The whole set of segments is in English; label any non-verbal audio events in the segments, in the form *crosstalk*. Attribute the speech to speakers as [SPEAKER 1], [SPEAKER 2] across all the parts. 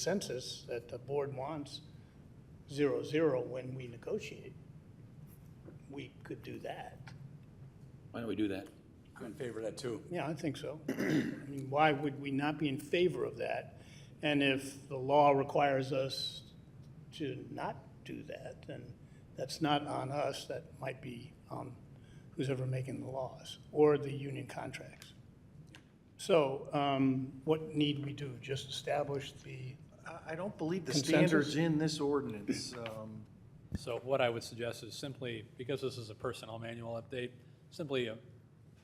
[SPEAKER 1] consensus that the board wants zero, zero when we negotiate, we could do that.
[SPEAKER 2] Why don't we do that?
[SPEAKER 3] I'm in favor of that too.
[SPEAKER 1] Yeah, I think so. *clears throat* I mean, why would we not be in favor of that? And if the law requires us to not do that, then that's not on us, that might be on who's ever making the laws or the union contracts. So um, what need we do? Just establish the,
[SPEAKER 4] I, I don't believe the
[SPEAKER 1] Consensus?
[SPEAKER 4] standard's in this ordinance. um,
[SPEAKER 5] So what I would suggest is simply, because this is a personnel manual update, simply uh,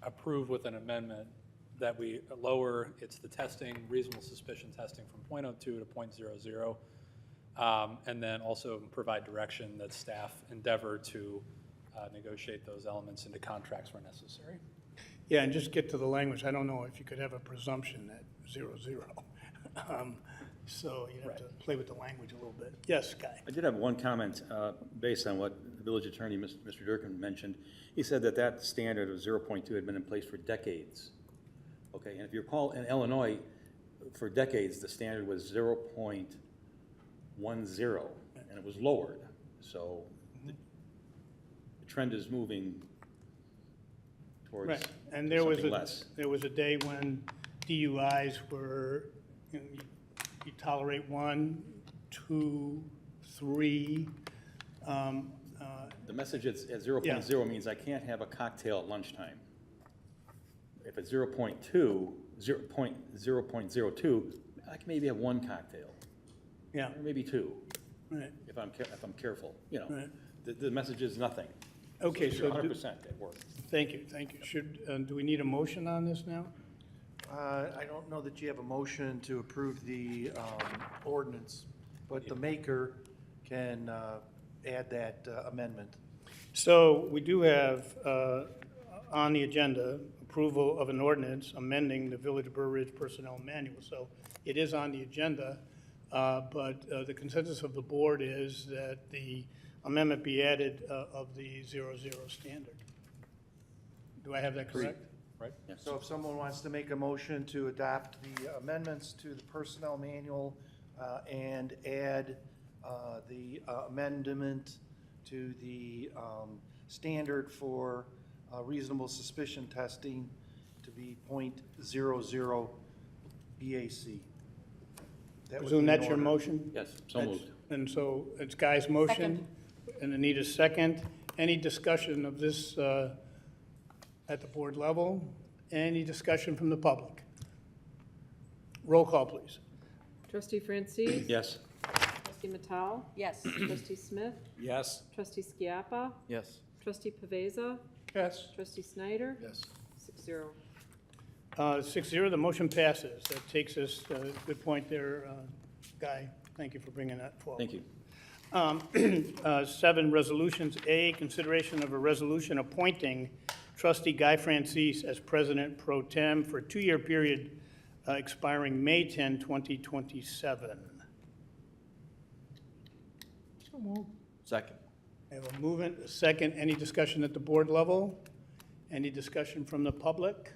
[SPEAKER 5] approve with an amendment that we lower, it's the testing, reasonable suspicion testing from .02 to .00. um, And then also provide direction that staff endeavor to uh, negotiate those elements into contracts where necessary.
[SPEAKER 1] yeah, and just get to the language. I don't know if you could have a presumption at zero, zero. *laughs* Um, So you'd have to play with the language a little bit. Yes, Guy?
[SPEAKER 2] I did have one comment, uh, based on what the village attorney, Mis- Mr. Durkin, mentioned. He said that that standard of 0.2 had been in place for decades. Okay, and if you recall, in Illinois, for decades, the standard was 0.10, and it was lowered. So the the trend is moving towards
[SPEAKER 1] Right, and there was
[SPEAKER 2] something
[SPEAKER 1] a,
[SPEAKER 2] less.
[SPEAKER 1] there was a day when DUIs were, you know, you- you tolerate one, two, three. um, uh,
[SPEAKER 2] The message at, at 0.0 means I can't have a cocktail at lunchtime. If it's 0.2, 0.0, 0.02, I can maybe have one cocktail,
[SPEAKER 1] Yeah,
[SPEAKER 2] or maybe two,
[SPEAKER 1] right,
[SPEAKER 2] if I'm, care- if I'm careful, you know.
[SPEAKER 1] Right.
[SPEAKER 2] The, the message is nothing.
[SPEAKER 1] okay, so,
[SPEAKER 2] You're 100%
[SPEAKER 1] do-
[SPEAKER 2] at work.
[SPEAKER 1] thank you, thank you. Should, uh, do we need a motion on this now?
[SPEAKER 4] uh, I don't know that you have a motion to approve the um, ordinance, but the maker can uh, add that uh, amendment.
[SPEAKER 1] So we do have uh, on the agenda approval of an ordinance amending the Village of Burr Ridge Personnel Manual. So it is on the agenda, uh, but uh, the consensus of the board is that the amendment be added uh, of the zero-zero standard. Do I have that correct?
[SPEAKER 5] Right?
[SPEAKER 4] So if someone wants to make a motion to adopt the amendments to the personnel manual uh, and add uh, the uh, amendment to the um, standard for uh, reasonable suspicion testing to be .00 BAC. That would
[SPEAKER 1] Presume
[SPEAKER 4] be in
[SPEAKER 1] that's your
[SPEAKER 4] order.
[SPEAKER 1] motion?
[SPEAKER 2] Yes, so moved.
[SPEAKER 1] And so it's Guy's motion and Anita's second. Any discussion of this uh, at the board level? Any discussion from the public? Roll call, please.
[SPEAKER 6] Trustee Francis?
[SPEAKER 2] Yes,
[SPEAKER 6] Trustee Matal? Yes. Trustee Smith?
[SPEAKER 3] Yes.
[SPEAKER 6] Trustee Skiappa?
[SPEAKER 3] Yes.
[SPEAKER 6] Trustee Paveza?
[SPEAKER 1] Yes.
[SPEAKER 6] Trustee Snyder?
[SPEAKER 4] Yes.
[SPEAKER 6] Six zero.
[SPEAKER 1] Uh, Six zero, the motion passes. That takes us, uh, good point there, uh, Guy. Thank you for bringing that forward.
[SPEAKER 2] thank you.
[SPEAKER 1] *clears throat* Uh, Seven resolutions. A, consideration of a resolution appointing trustee Guy Francis as president pro tem for a two-year period uh, expiring May 10, 2027.
[SPEAKER 3] Second.
[SPEAKER 1] I have a movement, a second. Any discussion at the board level? Any discussion from the public?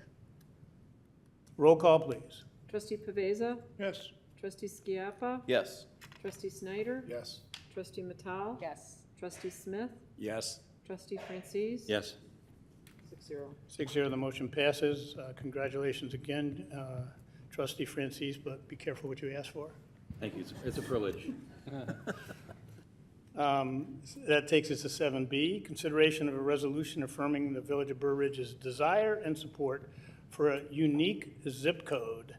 [SPEAKER 1] Roll call, please.
[SPEAKER 6] Trustee Paveza?
[SPEAKER 1] Yes.
[SPEAKER 6] Trustee Skiappa?
[SPEAKER 3] Yes.
[SPEAKER 6] Trustee Snyder?
[SPEAKER 4] Yes.
[SPEAKER 6] Trustee Matal? Yes. Trustee Smith?
[SPEAKER 3] Yes.
[SPEAKER 6] Trustee Francis?
[SPEAKER 2] Yes,
[SPEAKER 6] Six zero.
[SPEAKER 1] Six zero, the motion passes. Uh, Congratulations again, uh, trustee Francis, but be careful what you ask for.
[SPEAKER 2] thank you. It's- It's a privilege.
[SPEAKER 1] Um, That takes us to seven B, consideration of a resolution affirming the Village of Burr Ridge's desire and support for a unique zip code.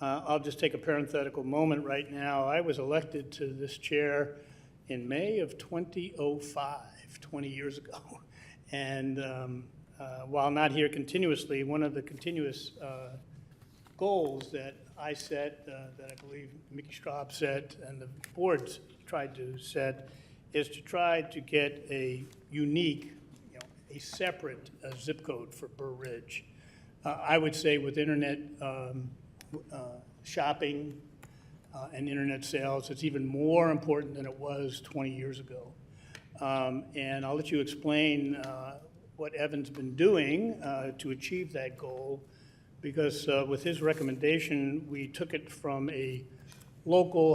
[SPEAKER 1] Uh, I'll just take a parenthetical moment right now. I was elected to this chair in May of 2005, 20 years ago. *laughs* And um, uh, while not here continuously, one of the continuous uh, goals that I set, uh, that I believe Mickey Straub set, and the boards tried to set, is to try to get a unique, you know, a separate uh, zip code for Burr Ridge. Uh, I would say with internet um, w- uh, shopping uh, and internet sales, it's even more important than it was 20 years ago. Um, And I'll let you explain uh, what Evan's been doing uh, to achieve that goal, because uh, with his recommendation, we took it from a local